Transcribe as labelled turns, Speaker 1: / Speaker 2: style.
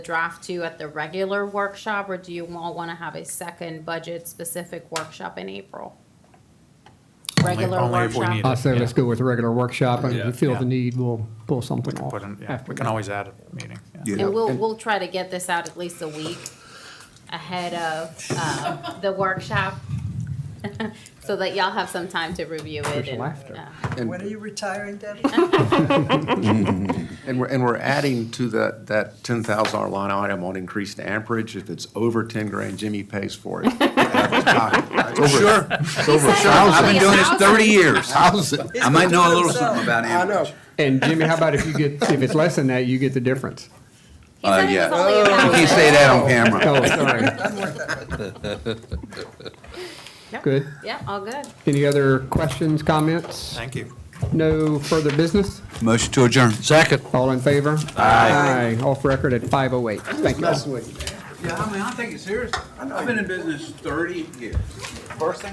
Speaker 1: draft to at the regular workshop, or do you all want to have a second budget-specific workshop in April? Regular
Speaker 2: only if we
Speaker 1: workshop.
Speaker 2: need
Speaker 3: I say let's go with a regular workshop, and if we feel
Speaker 2: Yeah.
Speaker 3: the need, we'll pull
Speaker 2: We
Speaker 3: something
Speaker 2: can
Speaker 3: off.
Speaker 2: put in, yeah,
Speaker 3: after
Speaker 2: we can
Speaker 3: that.
Speaker 2: always add a meeting. yeah.
Speaker 1: And we'll, we'll try to get this out at least a week ahead of uh, the workshop, so that y'all have some time to review it.
Speaker 3: There's
Speaker 1: and,
Speaker 3: laughter.
Speaker 1: uh,
Speaker 4: And,
Speaker 5: When are you retiring, Debbie?
Speaker 4: and we're, and we're adding to that, that ten thousand dollar line item on increased amperage. If it's over ten grand, Jimmy pays for it. Sure.
Speaker 1: I've been doing this 30
Speaker 6: years. I might know a little
Speaker 5: He's
Speaker 6: something about
Speaker 5: I know.
Speaker 6: amperage.
Speaker 3: And Jimmy, how about if you get, if it's less than that, you get the difference?
Speaker 1: He said
Speaker 6: Uh,
Speaker 1: it
Speaker 6: yeah.
Speaker 1: was only about.
Speaker 6: You can't say that on
Speaker 3: Oh,
Speaker 6: camera.
Speaker 3: sorry.
Speaker 5: I'm worth that much.
Speaker 1: Yep.
Speaker 3: Good.
Speaker 1: Yep, all good.
Speaker 3: Any other questions, comments?
Speaker 2: Thank you.
Speaker 3: No further business?
Speaker 6: Motion to adjourn.
Speaker 7: Second.
Speaker 3: All in favor? Aye. Off record at 5:08. Thank you all.
Speaker 5: Messing with you.
Speaker 8: Yeah, I mean, I take it serious. I've been in business thirty years. First thing